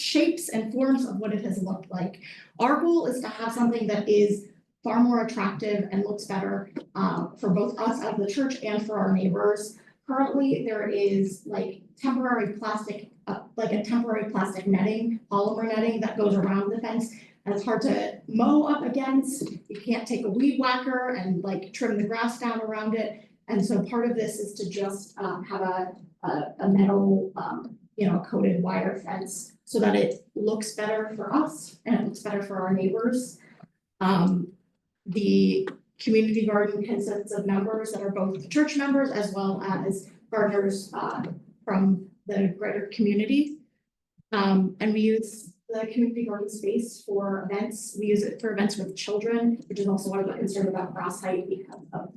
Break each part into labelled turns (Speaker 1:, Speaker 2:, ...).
Speaker 1: shapes and forms of what it has looked like. Our goal is to have something that is far more attractive and looks better um, for both us as the church and for our neighbors. Currently, there is like temporary plastic, uh, like a temporary plastic netting, polymer netting that goes around the fence. And it's hard to mow up against, you can't take a weed whacker and like trim the grass down around it. And so part of this is to just um, have a, a, a metal, um, you know, coated wire fence so that it looks better for us and it looks better for our neighbors. Um, the community garden consists of members that are both church members as well as gardeners, uh, from the greater community. Um, and we use the community garden space for events. We use it for events with children, which is also one of the concerns about cross height because of,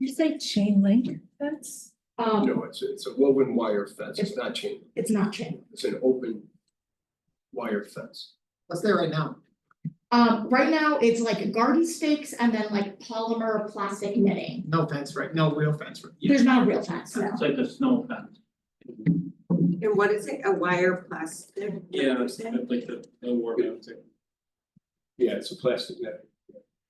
Speaker 2: You say chain link fence?
Speaker 1: um,
Speaker 3: No, it's, it's a woven wire fence, it's not chain,
Speaker 1: it's not chain.
Speaker 3: it's an open wire fence.
Speaker 4: What's there right now?
Speaker 1: Um, right now, it's like garden stakes and then like polymer plastic knitting.
Speaker 4: No fence, right? No real fence, right?
Speaker 1: There's not a real fence, no.
Speaker 5: It's like a snow fence.
Speaker 6: And what is it, a wire plastic?
Speaker 5: like the, the war
Speaker 3: fence. Yeah, it's a plastic net.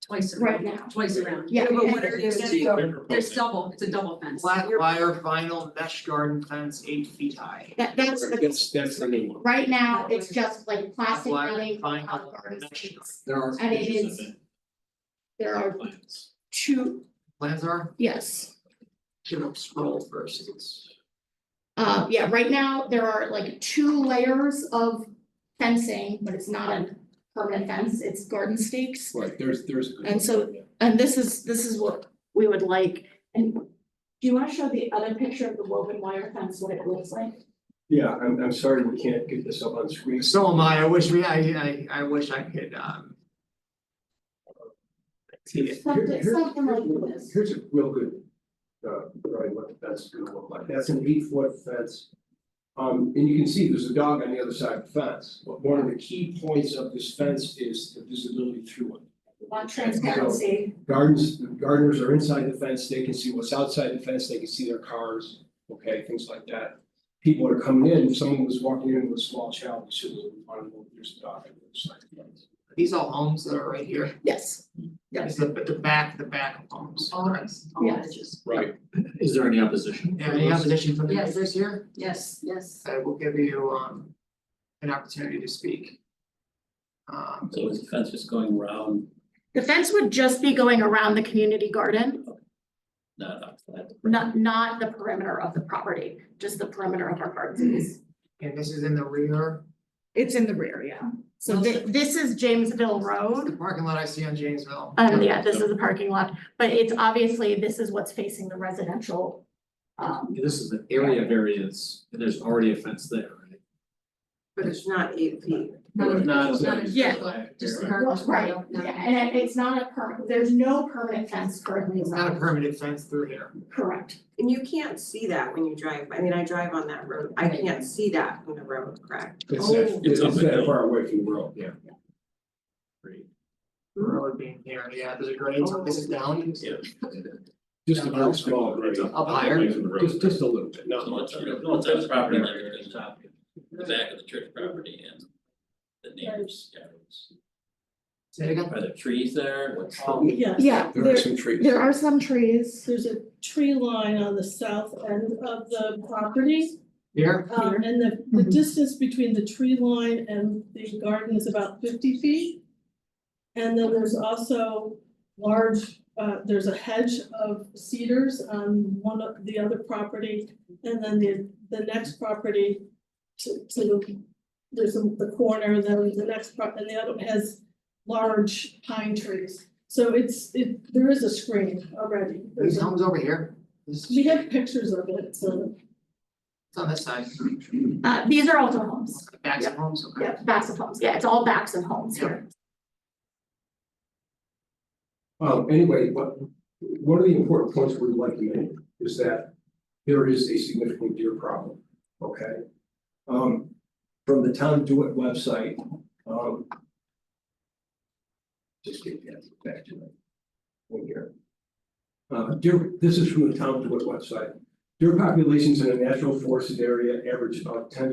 Speaker 7: Twice
Speaker 1: right
Speaker 7: around,
Speaker 1: now.
Speaker 7: twice around.
Speaker 1: Yeah,
Speaker 6: Yeah, but what
Speaker 1: and
Speaker 6: are you
Speaker 7: There's double, it's a double fence.
Speaker 4: Flat wire vinyl mesh garden fence eight feet high.
Speaker 1: that that's the,
Speaker 3: That's, that's the name.
Speaker 1: right now, it's just like plastic
Speaker 4: Black
Speaker 1: netting,
Speaker 4: vinyl
Speaker 1: uh, garden
Speaker 4: mesh
Speaker 1: stakes.
Speaker 3: There are.
Speaker 1: And it is, there are
Speaker 5: plants.
Speaker 1: two,
Speaker 4: Plans are,
Speaker 1: yes,
Speaker 4: give them scroll first, it's.
Speaker 1: uh, yeah, right now, there are like two layers of fencing, but it's not a permanent fence, it's garden stakes.
Speaker 3: Right, there's, there's.
Speaker 1: And so- And this is, this is what we would like, and do you wanna show the other picture of the woven wire fence, what it looks like?
Speaker 3: Yeah, I'm, I'm sorry, we can't get this up on screen.
Speaker 4: So am I, I wish we, I, I, I wish I could, um. See it.
Speaker 1: Something,
Speaker 3: Here-
Speaker 1: something like
Speaker 3: here's-
Speaker 1: this.
Speaker 3: Here's a real good, uh, drawing what the fence is gonna look like, that's an eight foot fence. Um, and you can see there's a dog on the other side of the fence, but one of the key points of this fence is the visibility through it.
Speaker 1: Want transparency.
Speaker 3: Gardens, gardeners are inside the fence, they can see what's outside the fence, they can see their cars, okay, things like that. People are coming in, if someone was walking in with a small child, they should have wanted to know there's a dog on the other side of the fence.
Speaker 4: These all homes that are right here,
Speaker 1: Yes,
Speaker 4: it's the, but the back, the back of homes.
Speaker 7: All right. all
Speaker 1: Yeah.
Speaker 7: edges.
Speaker 3: Right.
Speaker 5: Is there any opposition?
Speaker 4: Yeah, Any opposition from the
Speaker 7: Yes.
Speaker 4: neighbors here?
Speaker 7: Yes, yes.
Speaker 4: I will give you, um, an opportunity to speak. Um,
Speaker 5: So is the fence just going around,
Speaker 1: the fence would just be going around the community garden,
Speaker 5: not outside?
Speaker 1: not, not the perimeter of the property, just the perimeter of our gardens.
Speaker 4: and this is in the rear,
Speaker 1: It's in the rear, yeah. So thi- this is Jamesville
Speaker 4: the
Speaker 1: Road,
Speaker 4: parking lot I see on Janesville.
Speaker 1: um, yeah, this is the parking lot, but it's obviously, this is what's facing the residential. Um,
Speaker 8: This is an area of areas, and there's already a fence there, right?
Speaker 6: But it's not eight feet.
Speaker 8: Not- not-
Speaker 7: Not a
Speaker 1: Yeah.
Speaker 7: circle, Just a
Speaker 1: well,
Speaker 7: curve.
Speaker 1: right,
Speaker 7: no, no.
Speaker 1: yeah, and it- it's not a perm, there's no permanent fence currently
Speaker 4: It's not a
Speaker 1: around.
Speaker 4: permanent fence through here.
Speaker 1: Correct.
Speaker 6: And you can't see that when you drive, I mean, I drive on that road, I can't see that from the road, correct?
Speaker 3: It's
Speaker 7: Oh.
Speaker 3: that,
Speaker 5: It's up
Speaker 3: it's
Speaker 5: and
Speaker 3: that
Speaker 5: down.
Speaker 3: far away from the road, yeah.
Speaker 4: Road being here, yeah, there's a grade, so this is down.
Speaker 5: Yeah.
Speaker 3: Just a little small, right?
Speaker 4: Up higher.
Speaker 3: Just, just a little bit, not
Speaker 5: No,
Speaker 3: much.
Speaker 5: it's, no, it's on the property line, it's on top, the back of the church property and the neighbors, yeah. it's-
Speaker 4: Say it again.
Speaker 5: Are there trees there? What's?
Speaker 8: Oh,
Speaker 4: Um,
Speaker 1: Yeah,
Speaker 3: There are
Speaker 1: there,
Speaker 3: some trees.
Speaker 1: there are some trees.
Speaker 9: There's a tree line on the south end of the property.
Speaker 4: Here,
Speaker 9: Um, and the, the distance between the tree line and the garden is about fifty feet. And then there's also large, uh, there's a hedge of cedars on one of the other property. And then the, the next property to, to the, there's a- the corner, then the next prop, and the other has large pine trees. So it's, it, there is a screen already. There's
Speaker 4: these
Speaker 9: a-
Speaker 4: homes over here, this is,
Speaker 9: we have pictures of it, so.
Speaker 4: it's on this side,
Speaker 1: Uh, these are also homes,
Speaker 4: backs of homes, okay.
Speaker 1: yeah, backs of homes, yeah, it's all backs of homes here.
Speaker 3: Um, anyway, what, one of the important points we'd like to make is that there is a significant deer problem, okay? Um, from the town do it website, um. Just get that back to that. One here. Uh, deer, this is from the town do it website. Deer populations in a natural forested area average about ten